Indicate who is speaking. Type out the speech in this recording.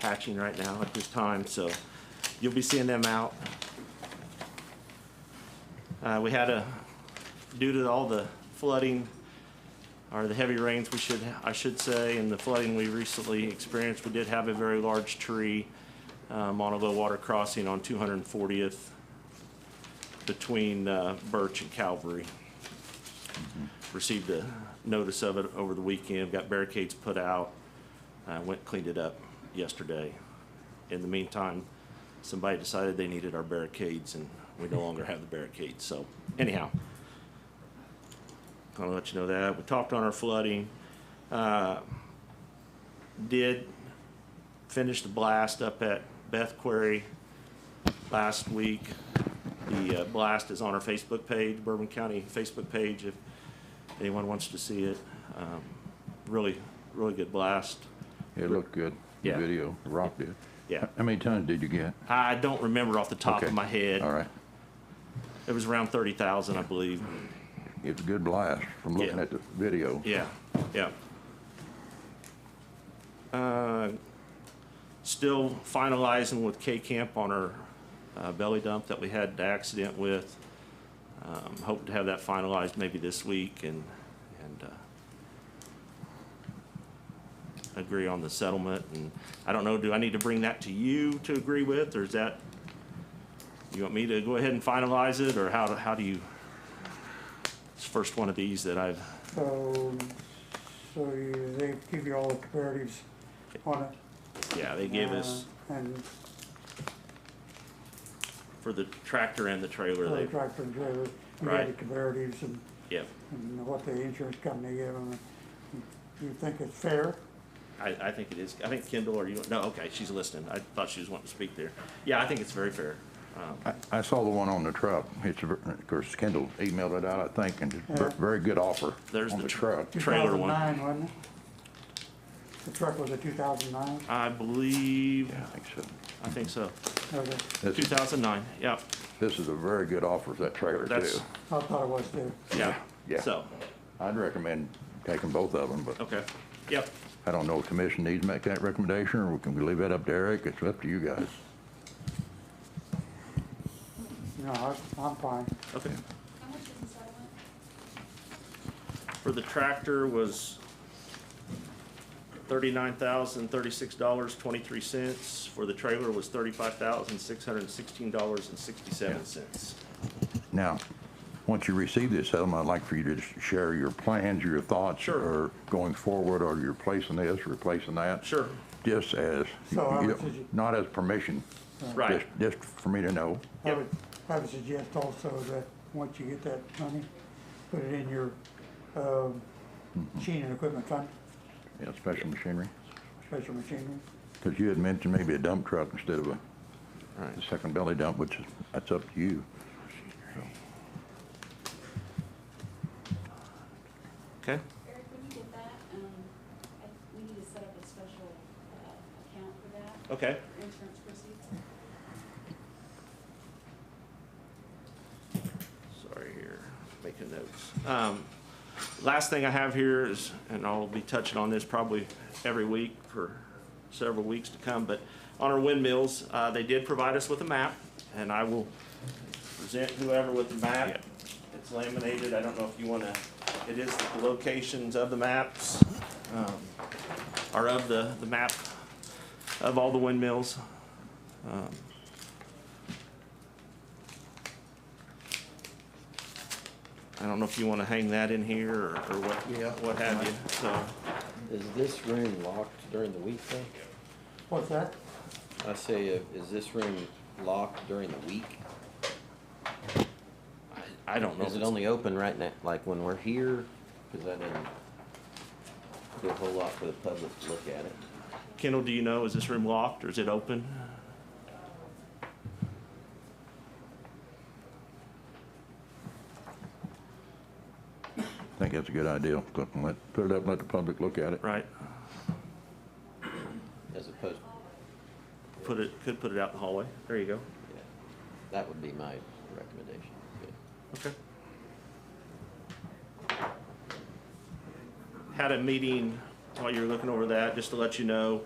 Speaker 1: patching right now at this time, so you'll be seeing them out. Uh, we had a, due to all the flooding, or the heavy rains, we should, I should say, and the flooding we recently experienced, we did have a very large tree um, on a low water crossing on 240th between uh, Birch and Calvary. Received a notice of it over the weekend, got barricades put out, I went and cleaned it up yesterday. In the meantime, somebody decided they needed our barricades, and we no longer have the barricades, so anyhow. I'll let you know that. We talked on our flooding. Uh, Did finish the blast up at Beth Quarry last week. The uh, blast is on our Facebook page, Bourbon County Facebook page, if anyone wants to see it. Um, Really, really good blast.
Speaker 2: It looked good. The
Speaker 1: Yeah.
Speaker 2: Video, rocked it.
Speaker 1: Yeah.
Speaker 2: How many tons did you get?
Speaker 1: I don't remember off the top of
Speaker 2: Okay.
Speaker 1: my head.
Speaker 2: All right.
Speaker 1: It was around 30,000, I believe.
Speaker 2: It's a good blast from looking
Speaker 1: Yeah.
Speaker 2: at the video.
Speaker 1: Yeah, yeah. Uh, Still finalizing with K-Camp on our uh, belly dump that we had the accident with. Um, Hope to have that finalized maybe this week and, and uh, agree on the settlement. And I don't know, do I need to bring that to you to agree with, or is that, you want me to go ahead and finalize it, or how, do- how do you? It's the first one of these that I've
Speaker 3: So, so you, they give you all the comparatives on it.
Speaker 1: Yeah, they gave us,
Speaker 3: uh, And
Speaker 1: for the tractor and the trailer,
Speaker 3: the
Speaker 1: they,
Speaker 3: tractor and trailer, you
Speaker 1: Right.
Speaker 3: have the comparatives and,
Speaker 1: yeah,
Speaker 3: and what the insurance company gave them. You think it's fair?
Speaker 1: I, I think it is, I think Kendall, or you, no, okay, she's listening, I thought she was wanting to speak there. Yeah, I think it's very fair.
Speaker 2: I, I saw the one on the truck. It's, a ver- of course, Kendall emailed it out, I think, and it's ver-
Speaker 3: Yeah.
Speaker 2: very good offer
Speaker 1: There's
Speaker 2: on
Speaker 1: the
Speaker 2: the
Speaker 1: tr-
Speaker 2: truck.
Speaker 1: Trailer one.
Speaker 3: 2009, wasn't it? The truck was a two thousand nine,
Speaker 1: I believe,
Speaker 2: Yeah, I think so.
Speaker 1: I think so,
Speaker 3: okay,
Speaker 1: two
Speaker 2: This,
Speaker 1: thousand nine, yeah,
Speaker 2: this is a very good offer for that trailer
Speaker 1: That's-
Speaker 2: too.
Speaker 3: I thought it was too.
Speaker 1: yeah.
Speaker 2: Yeah.
Speaker 1: So,
Speaker 2: I'd recommend taking both of them, but
Speaker 1: okay, yep,
Speaker 2: I don't know if commission needs to make that recommendation or we can we leave that up to Eric? It's up to you guys.
Speaker 3: No, I- I'm fine.
Speaker 1: okay.
Speaker 4: How much is the settlement?
Speaker 1: For the tractor was thirty-nine thousand, thirty-six dollars, twenty-three cents. For the trailer was thirty-five thousand, six hundred and sixteen dollars and sixty-seven cents.
Speaker 2: Now, once you receive this settlement, I'd like for you to just share your plans, your thoughts.
Speaker 1: Sure.
Speaker 2: Or going forward, or you're replacing this, replacing that.
Speaker 1: Sure,
Speaker 2: Just as, you
Speaker 3: So how much
Speaker 2: know,
Speaker 3: did you-
Speaker 2: not as permission.
Speaker 1: right,
Speaker 2: just- Just for me to know.
Speaker 3: I
Speaker 1: Yep.
Speaker 3: would, I would suggest also that, once you get that money, put it in your, um, machine and equipment fund,
Speaker 2: Yeah, special machinery.
Speaker 3: special machinery.
Speaker 2: Because you had mentioned maybe a dump truck instead of a
Speaker 1: right.
Speaker 2: a second belly dump, which is, that's up to you.
Speaker 1: Okay.
Speaker 4: Eric, when you get that, um, I, we need to set up a special, uh, account for that,
Speaker 1: Okay,
Speaker 4: for insurance proceeds.
Speaker 1: sorry here, making notes. Um, Last thing I have here is, and I'll be touching on this probably every week for several weeks to come, but on our windmills, uh, they did provide us with a map, and I will present whoever with the map. It's laminated, I don't know if you want to, it is the locations of the maps, um, or of the, the map of all the windmills. Um, I don't know if you want to hang that in here or or what,
Speaker 5: Yeah.
Speaker 1: what have you, so.
Speaker 5: Is this room locked during the week though?
Speaker 3: What's that?
Speaker 5: I say, uh, is this room locked during the week?
Speaker 1: I I don't know.
Speaker 5: Is
Speaker 1: if
Speaker 5: it
Speaker 1: it's-
Speaker 5: only open right now, like when we're here? Cause I didn't do a whole lot for the public to look at it.
Speaker 1: Kendall, do you know, is this room locked or is it open?
Speaker 2: I think that's a good idea. Look, and let- Put it up, and let the public look at it.
Speaker 1: Right,
Speaker 5: As opposed,
Speaker 1: put it, could put it out in the hallway. There you go.
Speaker 5: yeah, that would be my recommendation. Good.
Speaker 1: Okay. Had a meeting while you were looking over that, just to let you know,